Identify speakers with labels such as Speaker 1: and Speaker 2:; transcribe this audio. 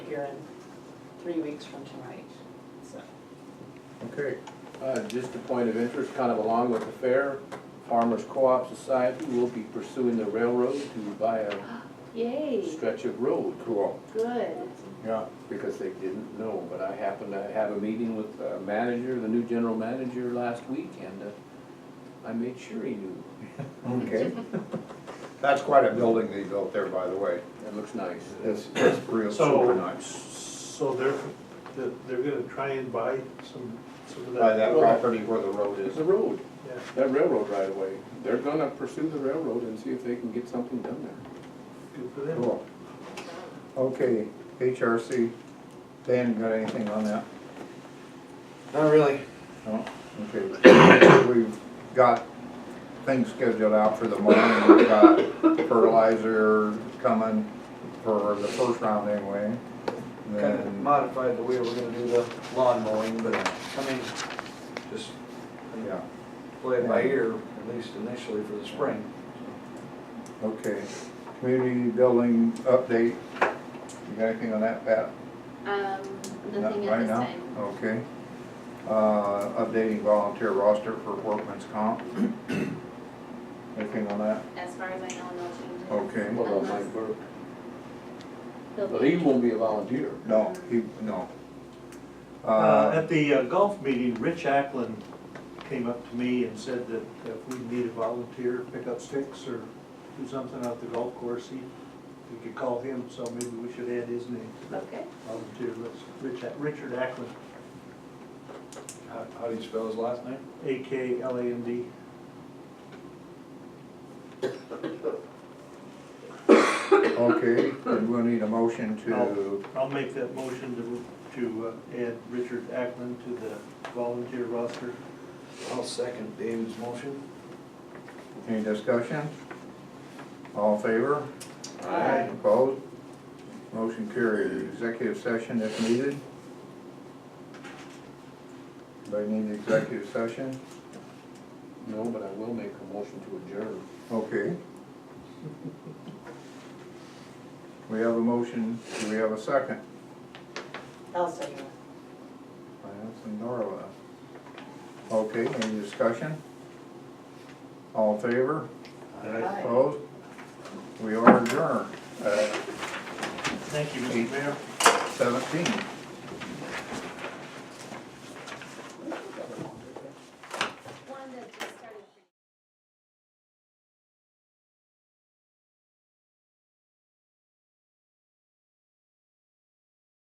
Speaker 1: here in three weeks from tonight, so.
Speaker 2: Okay,
Speaker 3: Uh, Just a point of interest, kind of along with the fair, Farmers Co-op Society will be pursuing the railroad to buy a
Speaker 4: Yay,
Speaker 3: stretch of road. Cool.
Speaker 4: good.
Speaker 3: Yeah. Because they didn't know, but I happened to have a meeting with the manager, the new general manager last week, and uh, I made sure he knew.
Speaker 2: okay. That's quite a building they built there, by the way.
Speaker 3: That looks nice.
Speaker 2: It's, it's real super
Speaker 5: So,
Speaker 2: nice.
Speaker 5: so they're, they're- they're gonna try and buy some, some of that.
Speaker 2: By uh, that
Speaker 3: Well-
Speaker 2: property where the road
Speaker 3: It's
Speaker 2: is.
Speaker 3: a road,
Speaker 5: Yeah.
Speaker 3: that railroad right away. They're gonna pursue the railroad and see if they can get something done there.
Speaker 5: Good for them.
Speaker 2: Cool. Okay, HRC, Dan, got anything on that?
Speaker 6: Not really.
Speaker 2: No? Okay. We've got things scheduled out for the morning, we've got fertilizer coming for the first round anyway.
Speaker 6: Kind of
Speaker 2: Then,
Speaker 6: modified the way we're gonna do the lawn mowing, but I mean, just
Speaker 2: yeah,
Speaker 6: play it by ear, at least initially for the spring.
Speaker 2: okay. Community building update, you got anything on that, Pat?
Speaker 4: Um,
Speaker 2: Not
Speaker 4: nothing at
Speaker 2: right
Speaker 4: this
Speaker 2: now?
Speaker 4: time.
Speaker 2: Okay. Uh, updating volunteer roster for workman's comp. Anything on that?
Speaker 4: As far as I know, no changes.
Speaker 2: Okay.
Speaker 3: What about Mike Burke?
Speaker 4: He'll
Speaker 3: Well,
Speaker 4: be-
Speaker 3: he won't be a volunteer.
Speaker 2: No, he, no.
Speaker 5: Uh,
Speaker 2: Uh,
Speaker 5: At the uh, golf meeting, Rich Ackland came up to me and said that if we need a volunteer, pick up sticks or do something out the golf course, he, we could call him, so maybe we should add his name to that
Speaker 4: Okay,
Speaker 5: volunteer list. Rich, Ack- Richard Ackland,
Speaker 6: How, how do you spell his last name?
Speaker 5: A K L A N D.
Speaker 2: okay, then we'll need a motion to,
Speaker 5: No. I'll make that motion to, to uh, add Richard Ackland to the volunteer roster.
Speaker 6: I'll second David's motion.
Speaker 2: any discussion? All in favor?
Speaker 5: Aye.
Speaker 2: Opposed? Motion carried. Executive session if needed. Anybody need executive session?
Speaker 3: No, but I will make a motion to adjourn.
Speaker 2: Okay. We have a motion, do we have a second?
Speaker 1: I'll second it.
Speaker 2: Lance and Darla. uh, Okay, any discussion? All in favor?
Speaker 1: Aye.
Speaker 2: Opposed? We are adjourned at
Speaker 5: Thank you, Mr. Mayor.
Speaker 2: seventeen.